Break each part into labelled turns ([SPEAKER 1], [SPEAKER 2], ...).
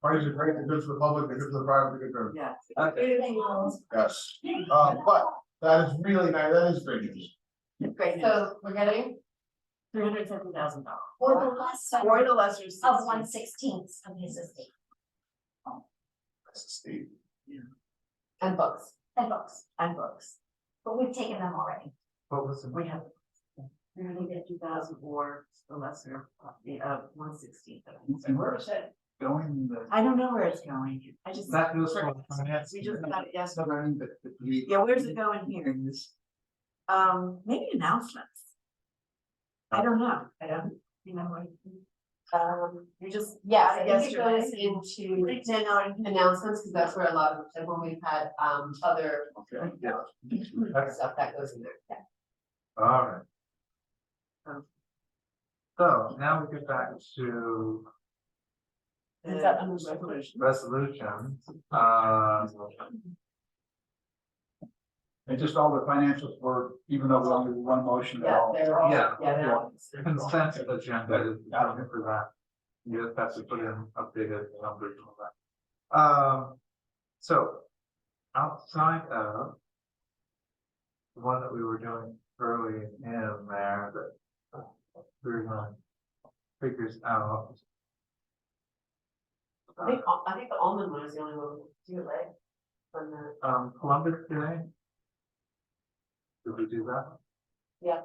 [SPEAKER 1] Why is it great, the good for the public, the good for the private, the good for,
[SPEAKER 2] Yes.
[SPEAKER 3] Okay.
[SPEAKER 1] yes, uh, but that is really nice, that is great news.
[SPEAKER 2] Great, so we're getting three hundred seventy thousand dollars.
[SPEAKER 4] Or the last
[SPEAKER 2] Or
[SPEAKER 4] sum
[SPEAKER 2] the lesser.
[SPEAKER 4] of one sixteenth of his estate
[SPEAKER 1] That's the state.
[SPEAKER 2] And books,
[SPEAKER 4] and books,
[SPEAKER 2] and books.
[SPEAKER 4] but we've taken them already.
[SPEAKER 3] What was the?
[SPEAKER 2] We have three hundred fifty thousand or the lesser of the, uh, one sixteenth of it.
[SPEAKER 3] And where is that going, the,
[SPEAKER 2] I don't know where it's going. I just.
[SPEAKER 3] that goes for finance?
[SPEAKER 2] We just got it yesterday.
[SPEAKER 3] So I mean, but but we.
[SPEAKER 2] Yeah, where's it going here?
[SPEAKER 3] This,
[SPEAKER 2] Um, maybe announcements. I don't know. I don't remember. Um, you just, yeah,
[SPEAKER 5] I think it
[SPEAKER 2] yesterday.
[SPEAKER 5] goes into announcements, because that's where a lot of, and when we've had um other
[SPEAKER 1] Okay, yeah,
[SPEAKER 5] stuff that goes in there.
[SPEAKER 3] all right. So now we get back to
[SPEAKER 2] And
[SPEAKER 5] Is that under
[SPEAKER 2] resolution?
[SPEAKER 3] resolution, uh.
[SPEAKER 1] and just all the financials were, even though we only one motion at
[SPEAKER 5] Yeah,
[SPEAKER 1] all.
[SPEAKER 5] they're all,
[SPEAKER 3] Yeah.
[SPEAKER 5] yeah, they're all.
[SPEAKER 3] Consent agenda, is out here for that. You just have to put in updated numbers and all that. Um, so outside of the one that we were doing early in there that uh, we we're gonna figures out.
[SPEAKER 5] I think, Al- I think the almond one is the only one we do, right? From the,
[SPEAKER 3] Um, Columbus today. Did we do that?
[SPEAKER 5] Yeah.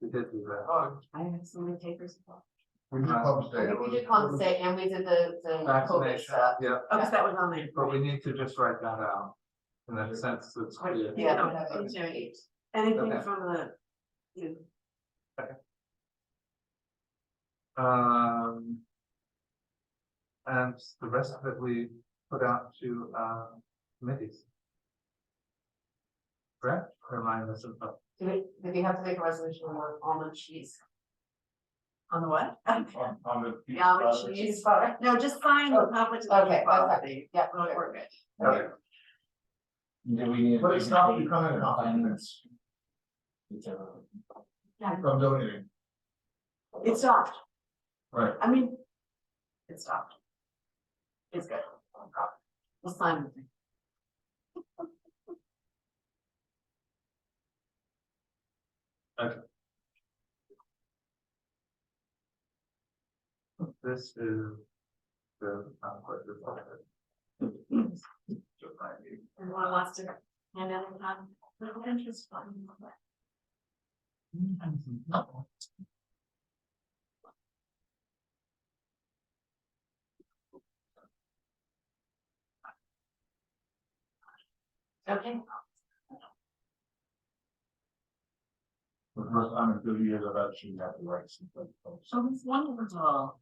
[SPEAKER 3] We did do that.
[SPEAKER 5] oh,
[SPEAKER 2] I have so many papers.
[SPEAKER 1] We did Columbus Day.
[SPEAKER 5] I
[SPEAKER 1] it
[SPEAKER 5] think we
[SPEAKER 1] was-
[SPEAKER 5] did Columbus Day and we did the the COVID
[SPEAKER 3] Vaccination,
[SPEAKER 5] stuff.
[SPEAKER 3] yeah,
[SPEAKER 2] Oh, because that was on there.
[SPEAKER 3] but we need to just write that out. In the sense that's clear.
[SPEAKER 5] Yeah,
[SPEAKER 2] Yeah,
[SPEAKER 5] whatever.
[SPEAKER 2] I'm doing it. Oh. Anything
[SPEAKER 3] Okay.
[SPEAKER 2] from the, you,
[SPEAKER 3] Um. And the rest of it we put out to uh committees. Correct, remind us of that.
[SPEAKER 5] Do we, did we have to make a resolution on almond cheese?
[SPEAKER 2] on the what?
[SPEAKER 1] On, on the.
[SPEAKER 5] The almond cheese product,
[SPEAKER 2] No, just sign the conflict of
[SPEAKER 5] okay,
[SPEAKER 2] interest policy.
[SPEAKER 5] yeah,
[SPEAKER 2] Oh, We're good.
[SPEAKER 1] Okay. But it's not becoming an offense. From donating,
[SPEAKER 2] It stopped.
[SPEAKER 1] right,
[SPEAKER 2] I mean, it stopped. It's good. Oh, We'll sign it.
[SPEAKER 3] This is the conflict of interest.
[SPEAKER 2] Everyone wants to hand out a con, little interest fund. Okay,
[SPEAKER 1] the first time in thirty years I've actually had the rights. and stuff, so-
[SPEAKER 2] so it's wonderful.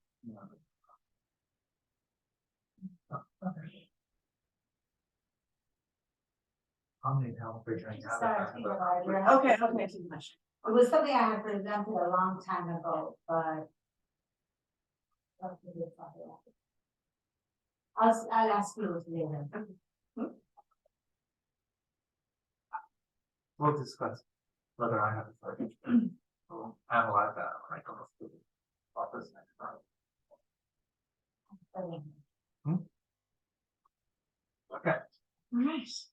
[SPEAKER 3] I'll need help figuring out.
[SPEAKER 4] Sorry,
[SPEAKER 3] that,
[SPEAKER 4] to
[SPEAKER 3] but-
[SPEAKER 4] interrupt you.
[SPEAKER 2] Okay, okay, too much.
[SPEAKER 4] It was something I had presented a long time ago, but. I'll, I'll ask you later.
[SPEAKER 3] We'll discuss whether I have a target. We'll analyze that when I come up to the office next time. Okay,
[SPEAKER 2] Nice.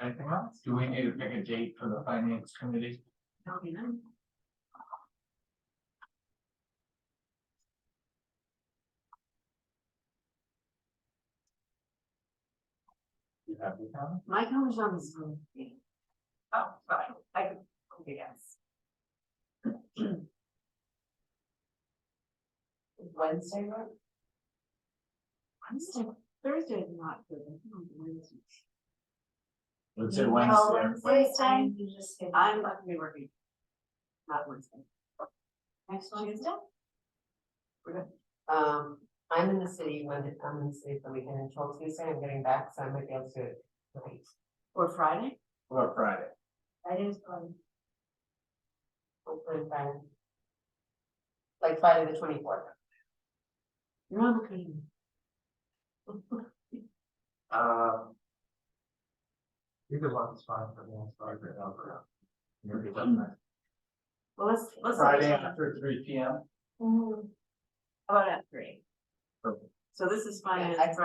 [SPEAKER 3] anything else?
[SPEAKER 6] Do we need to pick a date for the finance committee?
[SPEAKER 2] That'll be nice.
[SPEAKER 3] You have any comments?
[SPEAKER 2] My comments on this one. Oh, fine, I could, okay, yes.
[SPEAKER 5] Wednesday, right?
[SPEAKER 2] Wednesday, Thursday is not good. I think on Wednesday.
[SPEAKER 6] Let's say
[SPEAKER 4] Oh,
[SPEAKER 6] Wednesday.
[SPEAKER 4] Wednesday, you just. get-
[SPEAKER 2] I'm not gonna be working. Not Wednesday.
[SPEAKER 4] Next
[SPEAKER 2] Tuesday?
[SPEAKER 5] Um, I'm in the city, when, I'm in the city for the weekend until Tuesday, I'm getting back, so I might be able to do it tonight.
[SPEAKER 2] Or Friday?
[SPEAKER 6] Or Friday.
[SPEAKER 4] That is fun.
[SPEAKER 5] Hopefully Friday. Like Friday the twenty fourth.
[SPEAKER 2] You're on the committee.
[SPEAKER 3] Um. Either one's fine for me, I'm sorry, but I'll go. You're good, doesn't it?
[SPEAKER 2] Well, let's, let's.
[SPEAKER 6] Friday after three P M.
[SPEAKER 2] How About at three.
[SPEAKER 6] Perfect.
[SPEAKER 2] So this is finance,
[SPEAKER 4] I-